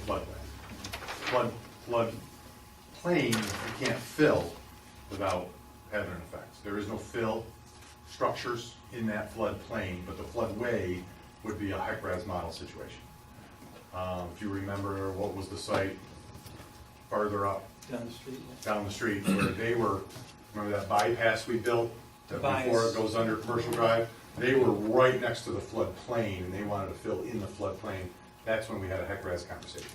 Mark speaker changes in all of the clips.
Speaker 1: floodway. Flood, flood plain, you can't fill without having an effect. There is no fill structures in that flood plain, but the floodway would be a HECRAS model situation. Um, If you remember, what was the site farther up
Speaker 2: Down the street,
Speaker 1: down the street where they were, remember that bypass we built? that Before
Speaker 2: Bias.
Speaker 1: it goes under commercial drive, they were right next to the floodplain and they wanted to fill in the floodplain. That's when we had a HECRAS conversation,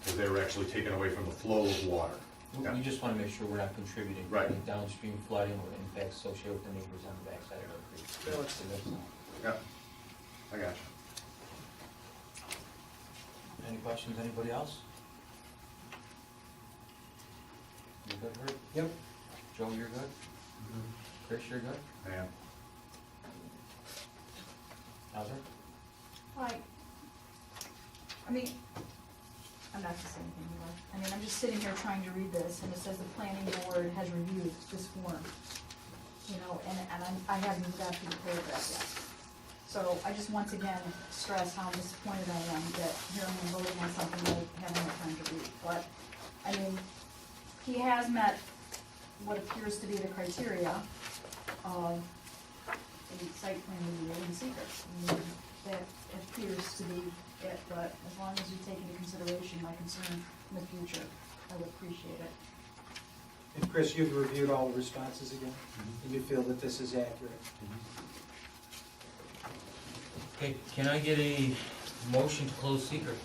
Speaker 1: because they were actually taken away from the flow of water.
Speaker 3: We- We just want to make sure we're not contributing to
Speaker 1: Right.
Speaker 3: any downstream flooding or impacts associated with the neighbors on the backside of our creek. So that's all.
Speaker 1: Yeah, I got you.
Speaker 3: Any questions, anybody else? You good, Herb?
Speaker 2: Yep. Mm-hmm.
Speaker 3: Joe, you're good? Chris, you're good?
Speaker 1: Man,
Speaker 3: Hauser?
Speaker 4: Like, I mean, I'm not gonna say anything more. I mean, I'm just sitting here trying to read this, and it says the planning board has reviewed this form. You know, and, and I'm- I haven't even got to the paragraph yet. So I just once again stress how disappointed I am that here I'm voting on something I haven't had time to read. But, I mean, he has met what appears to be the criteria of the site plan review and secrets. I mean, That appears to be it, but as long as you take into consideration my concern in the future, I would appreciate it.
Speaker 2: And Chris, you've reviewed all the responses again, and you feel that this is accurate.
Speaker 5: Okay, can I get a motion to close secret?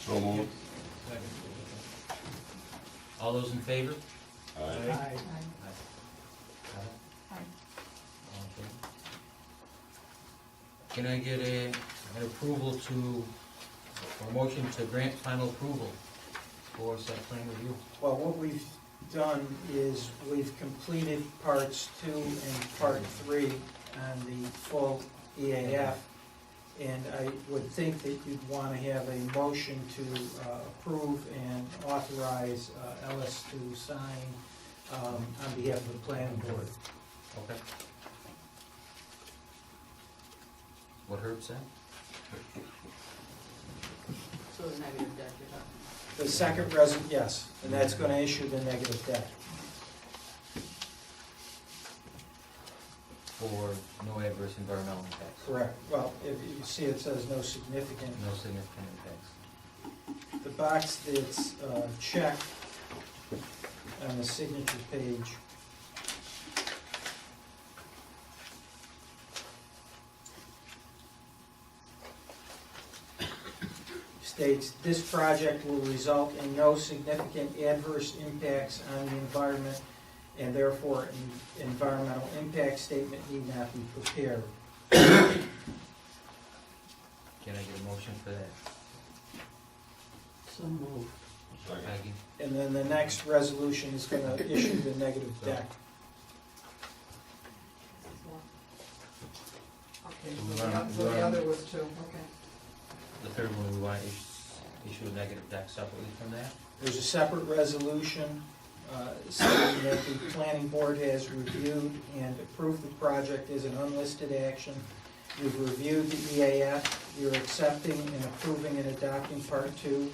Speaker 6: So moved.
Speaker 5: All those in favor?
Speaker 6: Aye.
Speaker 2: Aye.
Speaker 4: Hi.
Speaker 5: All in favor? Can I get a, an approval to, or motion to grant final approval for site plan review?
Speaker 2: Well, what we've done is we've completed parts two and part three on the full EAF. And I would think that you'd want to have a motion to uh, approve and authorize uh, Ellis to sign um, on behalf of the planning board.
Speaker 5: Okay. What Herb said?
Speaker 7: So the negative deck, you're not.
Speaker 2: The second resident, yes, and that's going to issue the negative debt.
Speaker 5: For no adverse environmental impacts?
Speaker 2: Correct. Well, if you see it says no significant,
Speaker 5: No significant impacts?
Speaker 2: the box that's uh, checked on the signature page. States, this project will result in no significant adverse impacts on the environment, and therefore en- environmental impact statement need not be prepared.
Speaker 5: Can I get a motion for that?
Speaker 7: So moved.
Speaker 6: Second.
Speaker 5: Maggie?
Speaker 2: And then the next resolution is gonna issue the negative deck.
Speaker 7: Okay,
Speaker 5: We
Speaker 7: so
Speaker 5: run-
Speaker 7: the- so
Speaker 5: we
Speaker 7: the
Speaker 5: run-
Speaker 7: other was two, okay.
Speaker 5: The third one, we want to issue, issue a negative deck separately from that?
Speaker 2: There's a separate resolution uh, saying that the planning board has reviewed and approved the project as an unlisted action. You've reviewed the EAF, you're accepting and approving and adopting part two.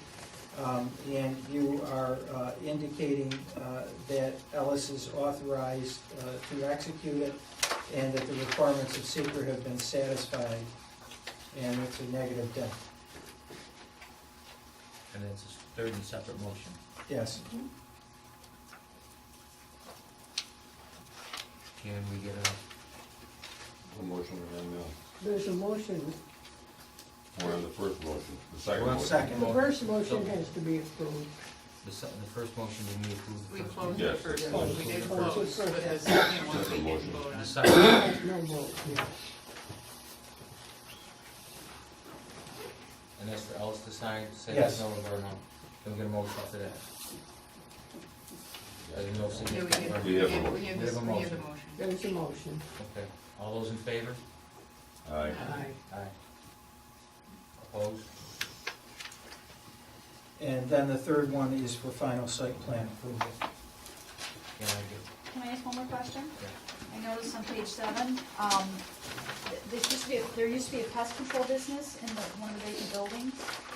Speaker 2: um, And you are uh, indicating uh, that Ellis is authorized uh, to execute it and that the requirements of secret have been satisfied. And it's a negative debt,
Speaker 5: And that's a third and separate motion.
Speaker 2: yes.
Speaker 5: Can we get a,
Speaker 6: The motion and then
Speaker 8: There's a motion,
Speaker 6: the, we're on the first motion, the second
Speaker 5: We're on
Speaker 6: motion.
Speaker 2: Second.
Speaker 8: the first motion has to be approved.
Speaker 5: the, se- the first motion, did we approve the
Speaker 7: We
Speaker 5: first? motion?
Speaker 7: closed the
Speaker 6: Yes,
Speaker 7: first
Speaker 6: it's
Speaker 7: one,
Speaker 6: closed.
Speaker 7: we did
Speaker 8: Oh,
Speaker 7: close,
Speaker 8: it's okay.
Speaker 7: but the second one
Speaker 6: That's
Speaker 7: we
Speaker 6: the
Speaker 7: didn't
Speaker 6: motion.
Speaker 7: vote
Speaker 5: The
Speaker 7: on.
Speaker 5: second,
Speaker 8: There's no vote, yeah.
Speaker 5: and that's for Ellis to sign, say
Speaker 2: Yes.
Speaker 5: there's no environmental, then we get a motion for that. Uh, There's no
Speaker 7: Yeah, we
Speaker 5: significant
Speaker 7: did,
Speaker 6: We
Speaker 7: we
Speaker 5: environmental.
Speaker 7: have,
Speaker 6: have a motion.
Speaker 5: We
Speaker 7: we have
Speaker 5: have
Speaker 7: this,
Speaker 5: a
Speaker 7: we have the
Speaker 5: motion.
Speaker 7: motion.
Speaker 8: There's a motion.
Speaker 5: Okay, all those in favor?
Speaker 6: Aye.
Speaker 7: Aye.
Speaker 5: Aye. Opposed?
Speaker 2: And then the third one is for final site plan approval.
Speaker 5: Can I
Speaker 4: Can I ask one more question?
Speaker 5: Yeah.
Speaker 4: I noticed on page seven, um, th- there used to be, a- there used to be a pest control business in the, one of the vacant buildings.